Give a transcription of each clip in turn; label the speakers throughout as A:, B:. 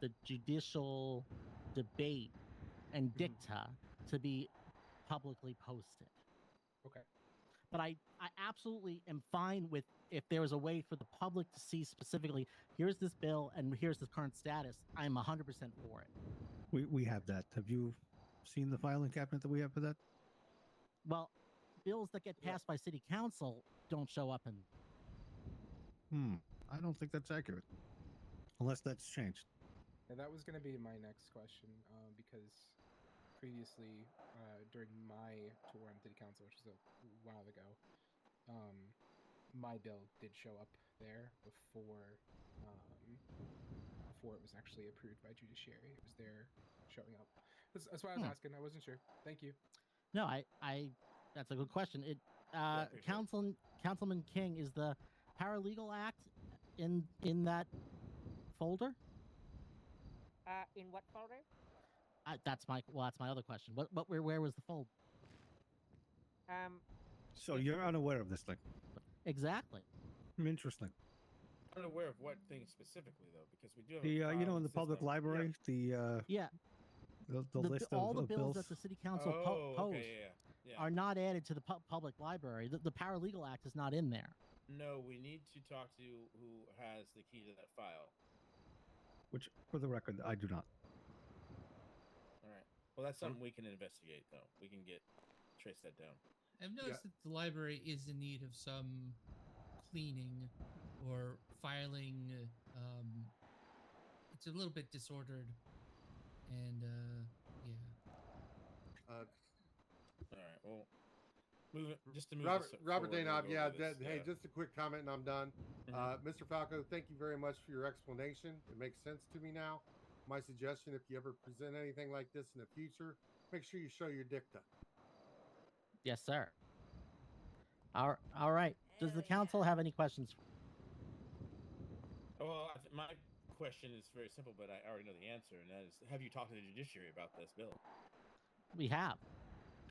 A: the judicial debate
B: Mm-hmm.
A: and dicta to be publicly posted.
B: Okay.
A: But I, I absolutely am fine with if there is a way for the public to see specifically, here's this bill and here's the current status. I'm 100% for it.
C: We, we have that. Have you seen the filing cabinet that we have for that?
A: Well, bills that get
B: Yeah.
A: passed by city council don't show up in
C: Hmm. I don't think that's accurate. Unless that's changed.
B: Now that was going to be my next question, uh, because previously uh, during my tour on city council, which was a while ago, um, my bill did show up there before um, before it was actually approved by judiciary. It was there showing up. That's, that's why I
A: Hmm.
B: was asking. I wasn't sure. Thank you.
A: No, I, I, that's a good question. It, uh,
D: appreciate it.
A: Councilman, Councilman King is the paralegal act in, in that folder?
E: Uh, in what folder?
A: I, that's my, well, that's my other question. What, what, where, where was the folder?
E: Um,
C: So you're unaware of this thing.
A: Exactly.
C: Interesting.
D: Unaware of what thing specifically though, because we do have a
C: The uh, you know
D: filing
C: in the public
D: system. Yeah.
C: library the uh
A: Yeah.
C: the, the,
A: bi-
C: list
A: all
C: of,
A: the
C: of
A: bills,
C: bills.
A: that the city council po-
D: oh,
A: posts
D: okay, yeah, yeah. yeah.
A: are not added to the pu- public library. The, the paralegal act is not in there.
D: No, we need to talk to who has the key to that file.
C: Which for the record I do not.
D: All right. Well, that's something we can investigate though. We can get trace that down.
F: I've noticed that the library is in need of some cleaning or filing. uh, Um, it's a little bit disordered, and uh, yeah.
G: Uh,
D: All right. Well, move it just to move.
G: Robert,
D: this
G: Robert
D: forward, we'll
G: Danob,
D: go
G: yeah,
D: over this.
G: that- Hey, just a quick comment, and I'm done.
D: Mhm.
G: Uh, Mr. Falco, thank you very much for your explanation. It makes sense to me now. My suggestion: if you ever present anything like this in the future, make sure you show your dicta.
A: Yes, sir. All, all right. Does the council have any questions?
D: Well, I th- my question is very simple, but I already know the answer, and that is: Have you talked to the judiciary about this bill?
A: We have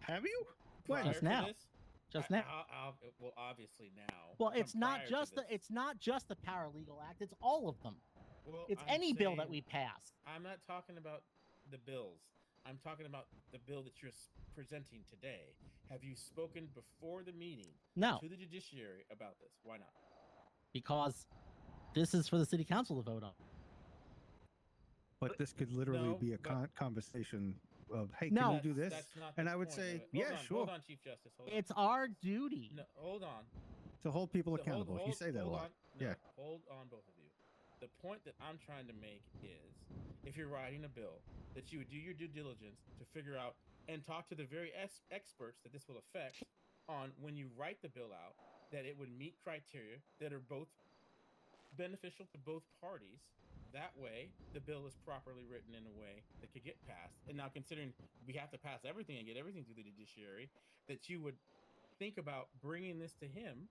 C: Have you?
A: Well,
D: Prior
A: Just
D: to
A: now.
D: this?
A: just
D: I-
A: now.
D: I'll- I'll- well, obviously now.
A: Well,
D: From
A: it's not
D: prior to
A: just the
D: this.
A: it's not just the paralegal act. It's all of them.
D: Well,
A: It's
D: I'm
A: any bill that
D: saying-
A: we pass.
D: I'm not talking about the bills. I'm talking about the bill that you're s- presenting today. Have you spoken before the meeting
A: No,
D: to the judiciary about this? Why not?
A: because this is for the city council to vote on.
C: But this could literally
D: No,
C: be a
D: but-
C: con- conversation of hey,
A: No.
C: can you do
D: That's-
C: this?
D: that's not the
C: and I would
D: point
C: say,
D: of it.
C: yeah,
D: hold on,
C: sure,
D: Hold on, Chief Justice. Hold on.
A: It's our duty.
D: No, hold on.
C: to hold people
D: So hold-
C: accountable. you
D: hold-
C: say that a
D: hold
C: lot.
D: on. No,
C: Yeah.
D: Hold on, both of you. The point that I'm trying to make is if you're writing a bill, that you would do your due diligence to figure out and talk to the very ex- experts that this will affect on when you write the bill out, that it would meet criteria that are both beneficial to both parties. That way, the bill is properly written in a way that could get passed. And now, considering we have to pass everything and get everything through the judiciary, that you would think about bringing this to him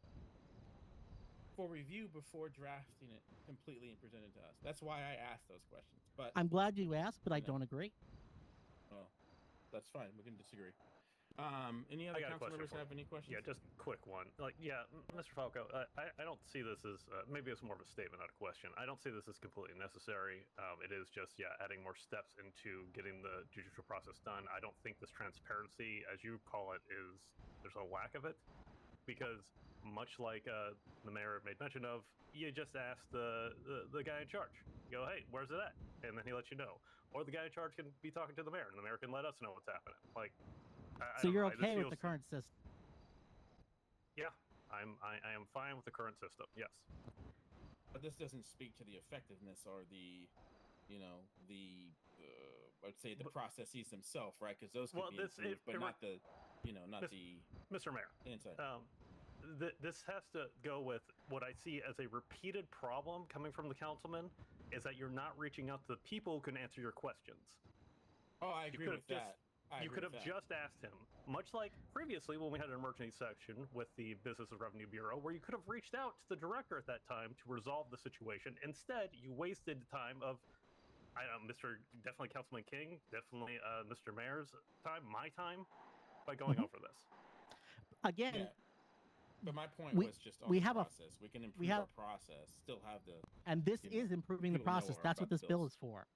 D: for review before drafting it completely and presenting it to us. That's why I asked those questions. But
A: I'm glad you asked, but I
D: No.
A: don't agree.
D: well, that's fine. We can disagree. Um, any other
H: got a
D: council
H: question
D: members
H: for
D: have
H: you.
D: any questions?
H: Yeah, just quick one. Like, yeah, m- Mr. Falco, uh, I, I don't see this as uh, maybe it's more of a statement, not a question. I don't see this as completely necessary. Um, it is just, yeah, adding more steps into getting the judicial process done. I don't think this transparency, as you call it, is there's a lack of it because much like uh, the mayor made mention of, you just ask the, the, the guy in charge. You go, hey, where's it at? And then he lets you know. Or the guy in charge can be talking to the mayor, and the mayor can let us know what's happening. Like, I, I
A: so
H: don't
A: you're
H: know, I- this
A: okay with the
H: feels-
A: current system?
H: yeah, I'm I, I am fine with the current system. Yes.
D: But this doesn't speak to the effectiveness or the, you know, the uh, I'd say the
H: But-
D: processes themselves, right? Because those could
H: Well,
D: be
H: this- it-
D: improved, but
H: it re-
D: not the, you know, not
H: This-
D: the
H: Mr. Mayor,
D: inside.
H: um, th- this has to go with what I see as a repeated problem coming from the councilman is that you're not reaching out to the people who can answer your questions.
D: oh, I agree
H: could've
D: with
H: just-
D: that. I
H: you
D: agree
H: could
D: with
H: have
D: that.
H: just asked him, much like previously when we had an emergency section with the Business and Revenue Bureau, where you could have reached out to the director at that time to resolve the situation. Instead, you wasted the time of, I don't know, Mr. Definitely Councilman King, definitely uh, Mr. Mayor's time, my time, by going
A: Mhm.
H: over this.
A: Again,
D: Yeah. But my point
A: we-
D: was just on
A: we
D: the
A: have a-
D: process. we can improve
A: have-
D: our process, still have the
A: and this
D: you know,
A: is improving the
D: people know
A: process.
D: are
A: That's what
D: about
A: this bill
D: bills.
A: is for.